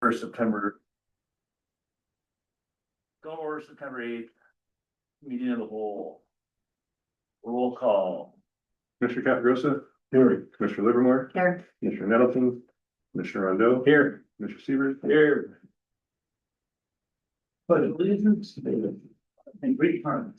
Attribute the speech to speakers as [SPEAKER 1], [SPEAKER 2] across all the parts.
[SPEAKER 1] for September. Go over September eighth. Meeting of the whole. Roll call.
[SPEAKER 2] Commissioner Caprosa. Here. Commissioner Livermore,
[SPEAKER 3] Here.
[SPEAKER 2] Commissioner Nettleton, Commissioner Rondo,
[SPEAKER 1] Here.
[SPEAKER 2] Commissioner Siebert.
[SPEAKER 1] Here. But allegiance to and great harmony.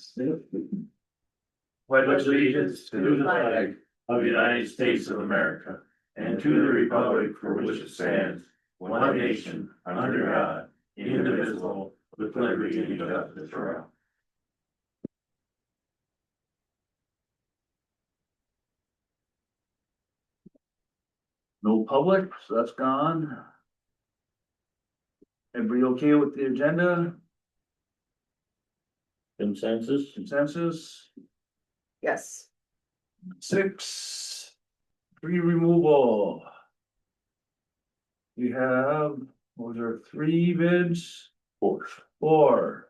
[SPEAKER 1] Pledge allegiance to the flag of the United States of America and to the republic for which it stands, one nation, under God, indivisible, with liberty and justice for all. No public, so that's gone. Everybody okay with the agenda
[SPEAKER 4] Consensus?
[SPEAKER 1] consensus?
[SPEAKER 3] Yes.
[SPEAKER 1] Six. Tree removal. We have, what was there three bids?
[SPEAKER 2] Four.
[SPEAKER 1] Four.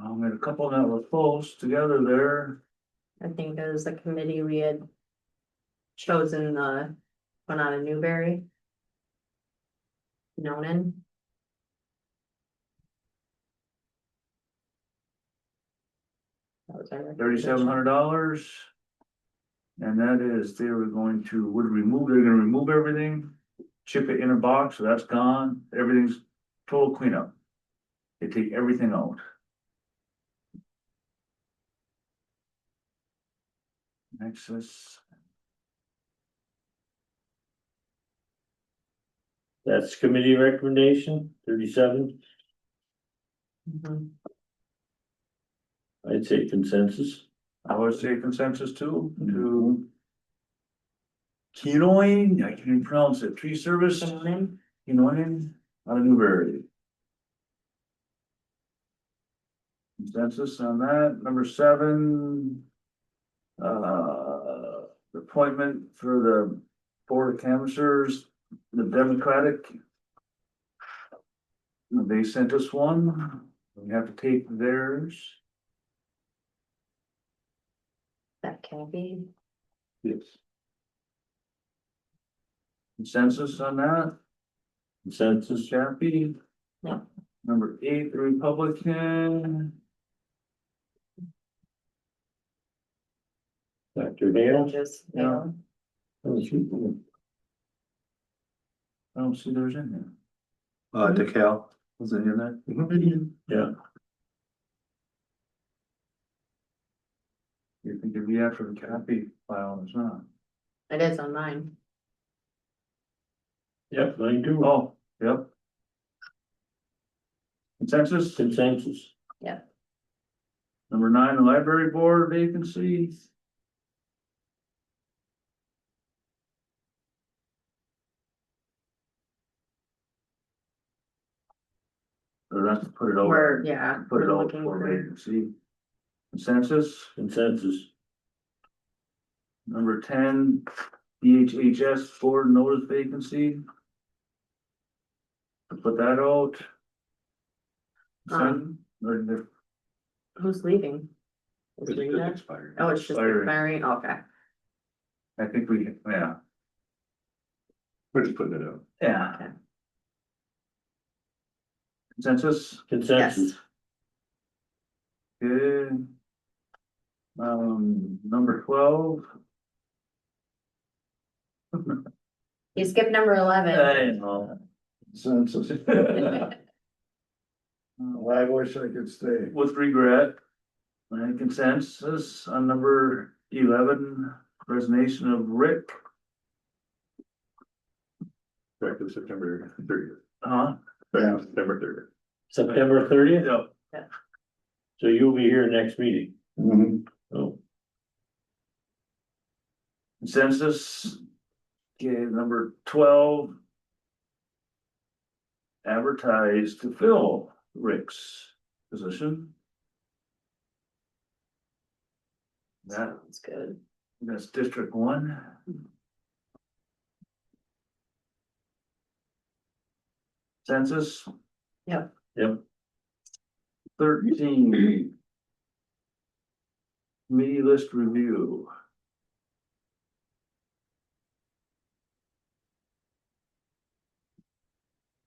[SPEAKER 1] Um, and a couple that were close together there.
[SPEAKER 3] I think there was a committee we had chosen the one out of Newberry. Nonan. That was our
[SPEAKER 1] thirty-seven hundred dollars. And that is, they were going to, would remove, they're gonna remove everything, chip it in a box, so that's gone, everything's total cleanup. They take everything out. Next is,
[SPEAKER 4] That's committee recommendation, thirty-seven,
[SPEAKER 3] recommendation.
[SPEAKER 4] I'd say consensus.
[SPEAKER 1] I would say consensus too, to. Kenoin, I can't even pronounce it, tree service,
[SPEAKER 3] Mhm. Nonan,
[SPEAKER 1] Kenoin, out of Newberry. Consensus on that, number seven. Uh, appointment for the board of canvassers, the Democratic. They sent us one, we have to take theirs,
[SPEAKER 3] that can be,
[SPEAKER 2] Yes.
[SPEAKER 1] consensus on that,
[SPEAKER 4] Consensus,
[SPEAKER 1] Chappie.
[SPEAKER 3] Yeah.
[SPEAKER 1] Number eight, the Republican,
[SPEAKER 4] Dr. Dale?
[SPEAKER 3] just,
[SPEAKER 1] Yeah.
[SPEAKER 3] you know,
[SPEAKER 1] I don't see theirs in there.
[SPEAKER 2] Uh, DeKal, was it in that?
[SPEAKER 1] You think it'd be after the copy file, it's not.
[SPEAKER 3] it is on mine.
[SPEAKER 4] Yep, I do.
[SPEAKER 1] Oh, yep. Consensus,
[SPEAKER 4] Consensus,
[SPEAKER 1] number nine, the library board vacancy. Or that's to put it over,
[SPEAKER 3] We're, yeah.
[SPEAKER 1] put it
[SPEAKER 3] we're
[SPEAKER 1] over
[SPEAKER 3] looking
[SPEAKER 1] for
[SPEAKER 3] for-
[SPEAKER 1] vacancy. Consensus,
[SPEAKER 4] consensus,
[SPEAKER 1] number ten, DHHS board notice vacancy. To Put that out. Consent?
[SPEAKER 3] Um,
[SPEAKER 1] Or the-
[SPEAKER 3] who's leaving? Is Rita? Oh, it's just
[SPEAKER 1] Larry.
[SPEAKER 3] Mary, okay.
[SPEAKER 1] I think we, yeah,
[SPEAKER 2] We're just putting it out.
[SPEAKER 1] yeah.
[SPEAKER 3] Okay.
[SPEAKER 1] Consensus,
[SPEAKER 4] consensus,
[SPEAKER 1] good. Um, number twelve.
[SPEAKER 3] You skipped number
[SPEAKER 1] Uh,
[SPEAKER 3] eleven.
[SPEAKER 1] know. Consensus.
[SPEAKER 2] Oh, I wish I could stay.
[SPEAKER 1] With regret. And consensus on number eleven, resignation of Rick,
[SPEAKER 2] Back to September thirtieth.
[SPEAKER 1] huh?
[SPEAKER 2] Yeah. September thirtieth.
[SPEAKER 4] September thirtieth,
[SPEAKER 1] Yep.
[SPEAKER 4] so you'll be here next meeting.
[SPEAKER 2] Mm-hmm.
[SPEAKER 4] Oh,
[SPEAKER 1] Consensus. Okay, number twelve. Advertise to fill Rick's position. That,
[SPEAKER 3] Sounds good.
[SPEAKER 1] that's District One. Census.
[SPEAKER 3] Yep.
[SPEAKER 4] Yep.
[SPEAKER 1] Thirteen. Committee list review.